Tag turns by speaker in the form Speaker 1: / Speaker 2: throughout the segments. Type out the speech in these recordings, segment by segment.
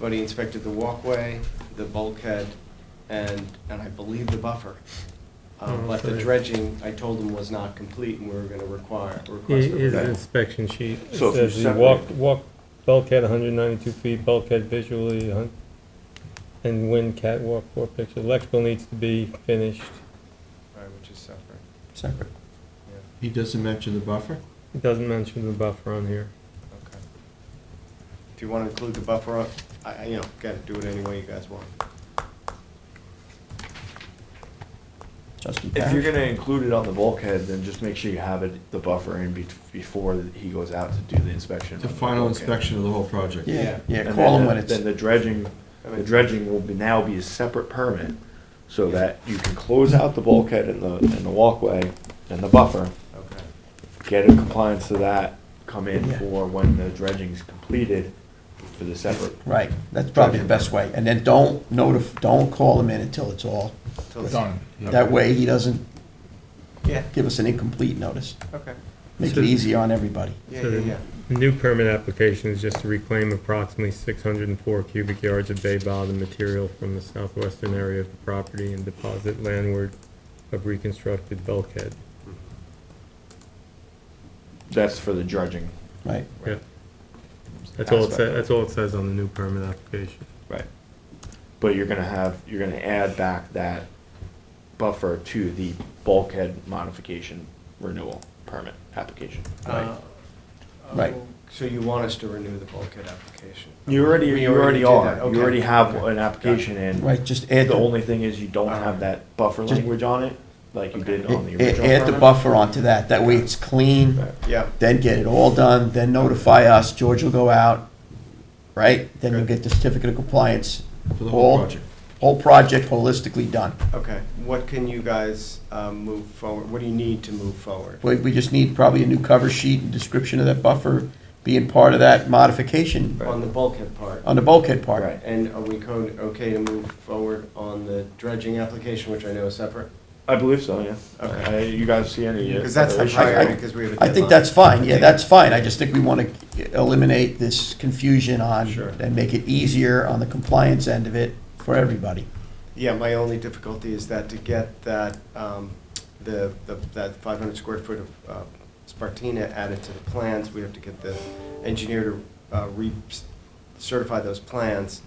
Speaker 1: but he inspected the walkway, the bulkhead, and, and I believe the buffer. Um,
Speaker 2: Oh,
Speaker 1: But the
Speaker 2: sorry.
Speaker 1: dredging, I told him was not complete and we were gonna require, request a
Speaker 2: Is an
Speaker 1: revision.
Speaker 2: inspection sheet. It
Speaker 3: So if you
Speaker 2: says the walk,
Speaker 3: separate-
Speaker 2: walk bulkhead 192 feet, bulkhead visually, a hun- and wind catwalk four pictures. Electrical needs to be finished.
Speaker 1: Right, Which is separate,
Speaker 3: Separate.
Speaker 1: yeah,
Speaker 4: He doesn't mention the buffer?
Speaker 2: It doesn't mention the buffer on here.
Speaker 1: okay. If you wanna include the buffer, I, I, you know, gotta do it any way you guys want.
Speaker 3: Justin
Speaker 5: If you're
Speaker 3: Parrish?
Speaker 5: gonna include it on the bulkhead, then just make sure you have it, the buffer in be- before he goes out to do the inspection.
Speaker 4: The
Speaker 5: on
Speaker 4: final
Speaker 5: bulkhead.
Speaker 4: inspection of the whole project?
Speaker 3: Yeah, yeah,
Speaker 5: And
Speaker 3: call
Speaker 5: then
Speaker 3: him
Speaker 5: the-
Speaker 3: when it's,
Speaker 5: Then the dredging, the dredging will be, now be a separate permit, so that you can close out the bulkhead and the, and the walkway and the buffer,
Speaker 1: Okay,
Speaker 5: get in compliance to that, come in
Speaker 3: Yeah.
Speaker 5: for when the dredging's completed for the separate.
Speaker 3: right, that's probably the best way. And then don't notif, don't call him in until it's all,
Speaker 1: till it's,
Speaker 4: Done.
Speaker 3: that way he doesn't
Speaker 1: yeah,
Speaker 3: give us an incomplete notice.
Speaker 1: okay,
Speaker 3: Make
Speaker 2: So-
Speaker 3: it easier on everybody.
Speaker 1: yeah,
Speaker 2: So
Speaker 1: yeah,
Speaker 2: the
Speaker 1: yeah.
Speaker 2: New permit application is just to reclaim approximately 604 cubic yards of bay bottom material from the southwestern area of the property and deposit landward of reconstructed bulkhead.
Speaker 5: That's for the dredging.
Speaker 3: Right,
Speaker 2: Yeah. That's all it says, that's all it says on the new permit application.
Speaker 5: Right. But you're gonna have, you're gonna add back that buffer to the bulkhead modification renewal permit application.
Speaker 1: Uh,
Speaker 3: Right.
Speaker 1: oh, So you want us to renew the bulkhead application?
Speaker 5: You already,
Speaker 1: We
Speaker 5: you already
Speaker 1: did
Speaker 5: are,
Speaker 1: that, okay.
Speaker 5: you already have
Speaker 1: Okay.
Speaker 5: an application in.
Speaker 3: right, just add,
Speaker 5: The
Speaker 3: the
Speaker 5: only thing is you don't have that buffer
Speaker 3: Just-
Speaker 5: language on it, like you did on the
Speaker 3: a-
Speaker 5: original
Speaker 3: a- add the
Speaker 5: permit.
Speaker 3: buffer onto that, that way it's clean,
Speaker 5: Right.
Speaker 1: Yeah,
Speaker 3: then get it all done, then notify us, George will go out, right? Then you'll
Speaker 1: Okay.
Speaker 3: get the certificate of compliance,
Speaker 4: For the
Speaker 3: All-
Speaker 4: whole project?
Speaker 3: whole project holistically done.
Speaker 1: okay. What can you guys um, move forward, what do you need to move forward?
Speaker 3: We, we just need probably a new cover sheet and description of that buffer being part of that modification
Speaker 1: On the bulkhead part?
Speaker 3: on the bulkhead part.
Speaker 5: Right.
Speaker 1: And are we code, okay to move forward on the dredging application, which I know is separate?
Speaker 5: I believe so, yeah.
Speaker 1: Okay.
Speaker 5: I- You guys see any?
Speaker 1: Because that's the
Speaker 5: other issue?
Speaker 1: priority, because we have a
Speaker 3: I
Speaker 1: deadline.
Speaker 3: think that's fine, yeah, that's fine, I just think we wanna eliminate this confusion on,
Speaker 1: Sure.
Speaker 3: and make it easier on the compliance end of it for everybody.
Speaker 1: Yeah, my only difficulty is that to get that, um, the, the- that 500 square foot of uh, Spartina added to the plans, we have to get the engineer to uh, re-certify those plans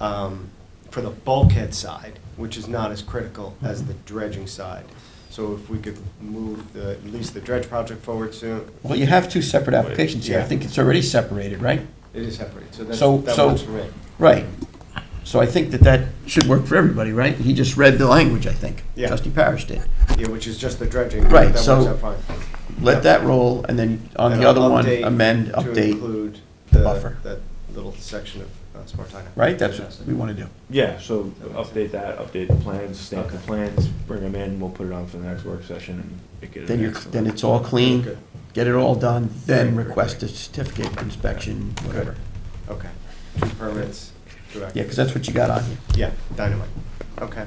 Speaker 1: um, for the bulkhead side, which is not as critical as the dredging side. So if we could move the, at least the dredge project forward soon,
Speaker 3: Well, you have two separate applications here, I
Speaker 1: Yeah.
Speaker 3: think it's already separated, right?
Speaker 1: it is separated, so that's,
Speaker 3: So-
Speaker 1: that
Speaker 3: so-
Speaker 1: works for me.
Speaker 3: Right, so I think that that should work for everybody, right? He just read the language, I think,
Speaker 1: Yeah.
Speaker 3: trustee Parish did.
Speaker 1: Yeah, which is just the dredging. but
Speaker 3: Right,
Speaker 1: That works
Speaker 3: so-
Speaker 1: out fine.
Speaker 3: Let that roll, and then on
Speaker 1: And
Speaker 3: the other
Speaker 1: I'll
Speaker 3: one,
Speaker 1: update
Speaker 3: amend,
Speaker 1: To
Speaker 3: update,
Speaker 1: include
Speaker 3: the
Speaker 1: the,
Speaker 3: buffer.
Speaker 1: that little section of uh, Spartina.
Speaker 3: right? That's what we wanna do.
Speaker 5: Yeah, so update that, update the plans, stamp the plans, bring them in, we'll put it on for the next work session and make it. an
Speaker 3: Then you're,
Speaker 5: excellent-
Speaker 3: then it's all clean,
Speaker 1: Good.
Speaker 3: get it all done, then
Speaker 5: Right, right,
Speaker 3: request a
Speaker 5: right.
Speaker 3: certificate, inspection, whatever.
Speaker 1: Okay. Two permits, two
Speaker 3: Yeah,
Speaker 1: active.
Speaker 3: because that's what you got on you.
Speaker 1: Yeah, dynamite. Okay,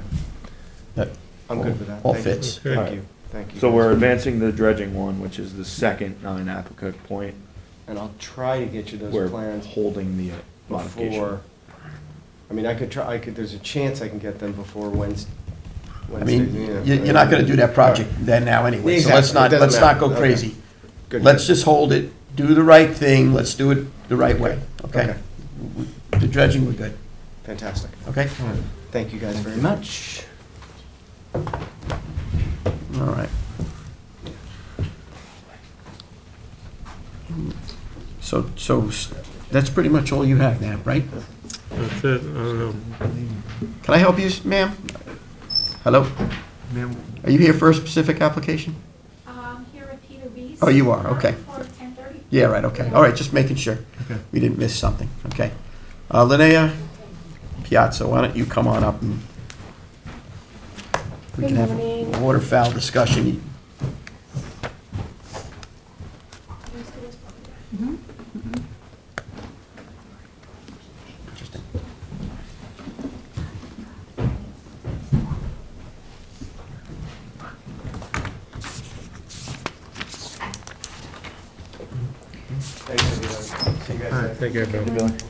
Speaker 3: That
Speaker 1: I'm good with that.
Speaker 3: All
Speaker 1: Thank you.
Speaker 3: fits.
Speaker 1: Thank you, thank you.
Speaker 5: So
Speaker 1: guys.
Speaker 5: we're advancing the dredging one, which is the second non-applicant point.
Speaker 1: And I'll try to get you
Speaker 5: We're
Speaker 1: those plans
Speaker 5: holding the modification.
Speaker 1: before, I mean, I could try, I could, there's a chance I can get them before Wednes-
Speaker 3: I
Speaker 1: Wednesday.
Speaker 3: mean,
Speaker 1: yeah,
Speaker 3: you- you're not gonna do that project then now anyway, so let's
Speaker 1: Exactly.
Speaker 3: not,
Speaker 1: It doesn't
Speaker 3: let's not go
Speaker 1: matter. Okay.
Speaker 3: crazy.
Speaker 1: Good.
Speaker 3: Let's just hold it, do the right thing, let's do it the right way, okay?
Speaker 1: Okay.
Speaker 3: The dredging, we're good,
Speaker 1: Fantastic.
Speaker 3: okay?
Speaker 4: All right.
Speaker 1: Thank you guys very much.
Speaker 3: All right. So, so, s- that's pretty much all you have, Nab, right?
Speaker 2: That's it, I don't know.
Speaker 3: Can I help you, ma'am? Hello? Are you here for a specific application?
Speaker 6: Um, here at Peter Reese. Uh,
Speaker 3: Oh, you are, okay.
Speaker 6: For ten thirty.
Speaker 3: Yeah, right, okay. All right, just making sure. We didn't miss something, okay. Uh, Linnea Piazza, why don't you come on up and we can have a
Speaker 6: morning.
Speaker 3: waterfowl discussion. Interesting.
Speaker 1: Thank you. See you guys.
Speaker 2: All right,
Speaker 1: later.
Speaker 2: take care, Bill.